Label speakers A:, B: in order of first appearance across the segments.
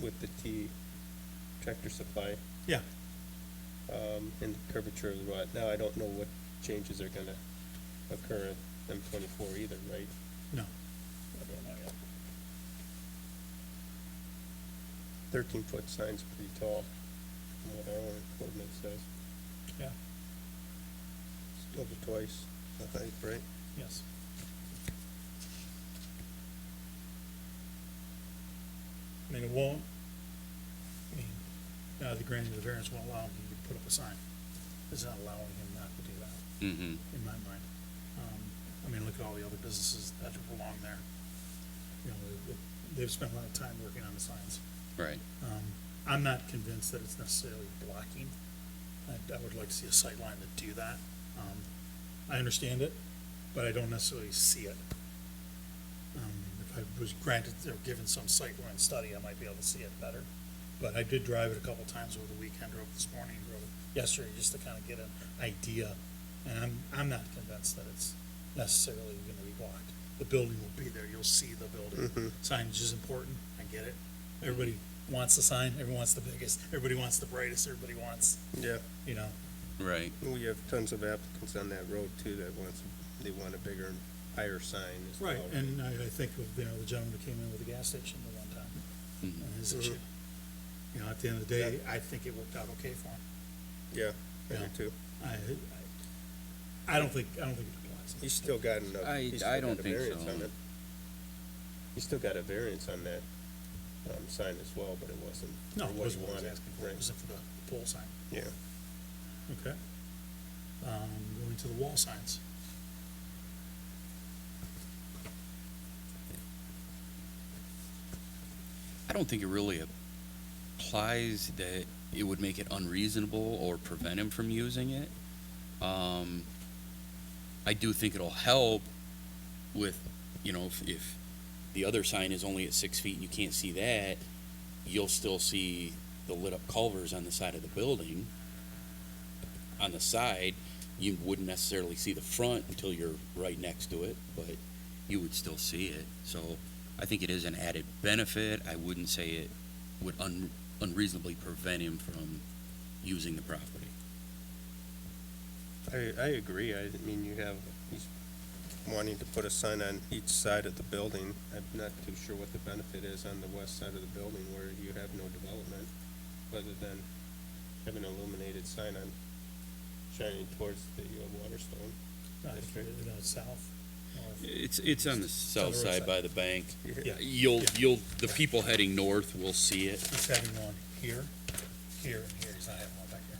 A: with the T tractor supply,
B: Yeah,
A: um, and the curvature of the lot. Now, I don't know what changes are gonna occur at M twenty-four either, right?
B: no,
A: Thirteen-foot sign's pretty tall, from what our ordinance says.
B: yeah,
A: It's double twice the height, right?
B: yes. I mean, it won't, I mean, uh, the granting of the variance won't allow him to put up a sign. It's not allowing him not to do that,
C: Mm-hmm.
B: in my mind. Um, I mean, look at all the other businesses that are along there. You know, they- they've spent a lot of time working on the signs.
C: Right.
B: Um, I'm not convinced that it's necessarily blocking. I, I would like to see a sight line to do that. Um, I understand it, but I don't necessarily see it. Um, if I was granted or given some sight line study, I might be able to see it better. But I did drive it a couple times over the weekend, drove this morning, drove it yesterday, just to kind of get an idea. And I'm, I'm not convinced that it's necessarily gonna be blocked. The building will be there, you'll see the building. Signage is important, I get it. Everybody wants the sign, everyone wants the biggest, everybody wants the brightest, everybody wants,
A: Yeah,
B: you know,
C: Right.
A: we have tons of applicants on that road too that wants, they want a bigger and higher sign as well.
B: Right, and I, I think of, you know, the gentleman who came in with the gas station the one time,
C: Mm-hmm.
B: and his issue. You know, at the end of the day, I think it worked out okay for him.
A: Yeah, I do
B: Yeah.
A: too.
B: I, I, I don't think, I don't think it applies.
A: He's still got enough.
C: I-
A: he's
C: I
A: still
C: don't
A: got a
C: think
A: variance
C: so.
A: on it. He's still got a variance on that, um, sign as well, but it wasn't.
B: No,
A: for what
B: it
A: he
B: wasn't what I was
A: wanted,
B: asking for, it
A: right.
B: wasn't for the pole sign,
A: Yeah,
B: okay? Um, going to the wall signs.
C: I don't think it really applies that it would make it unreasonable or prevent him from using it. Um, I do think it'll help with, you know, if, if the other sign is only at six feet and you can't see that, you'll still see the lit up culvers on the side of the building. On the side, you wouldn't necessarily see the front until you're right next to it, but you would still see it. So I think it is an added benefit. I wouldn't say it would un- unreasonably prevent him from using the property.
A: I, I agree. I mean, you have, he's wanting to put a sign on each side of the building. I'm not too sure what the benefit is on the west side of the building where you have no development, other than having an illuminated sign on, shining towards the uh, Waterstone.
B: Not if you're, Uh, you know, south, north.
C: It's, it's on the south
B: roadside.
C: side by the bank.
B: Yeah.
C: You'll,
B: Yeah.
C: you'll, the people heading north will see it.
B: He's having one here, here, and here, he's not having one back here.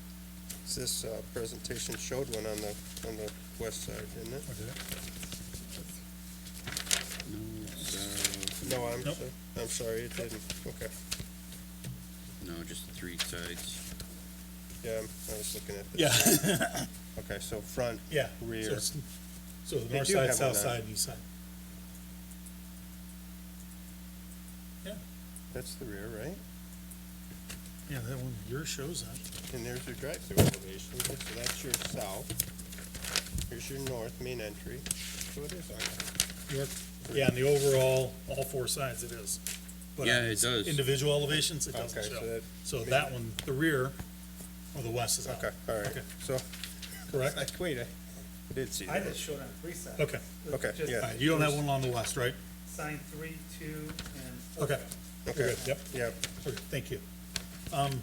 A: This, uh, presentation showed one on the, on the west side, didn't it?
B: Or did it?
C: No, south,
A: No, I'm,
B: Nope.
A: so- I'm sorry, it didn't. Okay.
C: no, just the three sides.
A: Yeah, I'm- I was looking at this.
B: Yeah.
A: Okay, so front,
B: Yeah.
A: Rear.
B: So it's- So the
A: They
B: north
A: do
B: side,
A: have one uh,
B: south
A: on-
B: side, and east side. Yeah,
A: that's the rear, right?
B: yeah, that one, yours shows that.
A: And there's your drive-through elevation, so that's your south. Here's your north main entry. So it is on that.
B: Your- Yeah, on the overall, all four sides it is. But
C: Yeah,
B: on
C: it does.
B: Individual elevations, it doesn't
A: Okay, so
B: show.
A: that-
B: So that one, the rear, or the west is out,
A: Okay, all right.
B: Okay.
A: So,
B: correct?
A: like, wait, I I did see
D: I
A: that.
D: just showed on three sides.
B: Okay.
D: It's
A: Okay,
D: just
A: yeah.
B: All right, you don't have one on the west, right?
D: Sign three, two, and four.
B: Okay.
A: Okay.
B: You're good, Yep,
A: Yep,
B: okay, thank you. Um,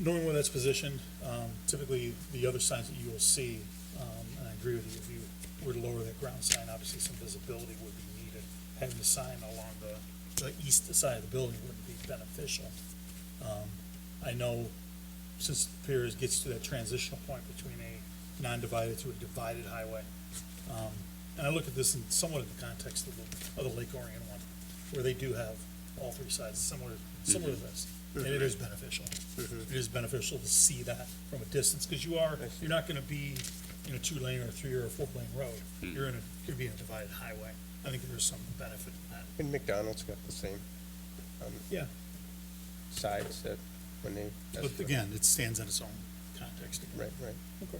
B: Knowing where that's positioned, um, typically the other signs that you will see, um, and I agree with you, if you were to lower that ground sign, obviously some visibility would be needed. Having a sign along the, the east side of the building would be beneficial. Um, I know since the pier is- gets to that transitional point between a non-divided to a divided highway, um, and I look at this in somewhat in the context of the, of the Lake Orion one, where they do have all three sides similar, similar
A: Mm-hmm.
B: to this. And it is beneficial. It is beneficial to see that from a distance, because you are, you're not gonna be in a two-lane or a three or a four-lane road.
A: Mm.
B: You're in a, you're being a divided highway. I think there's some benefit in that.
A: and McDonald's got the same
B: Yeah.
A: sides that when they. that's
B: But
A: the-
B: again, it stands in its own context. again.
A: Right, right.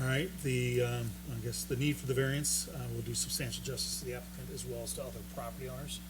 B: All right, the, um, I guess the need for the variance, uh, will do substantial justice to the applicant as well as to other property owners.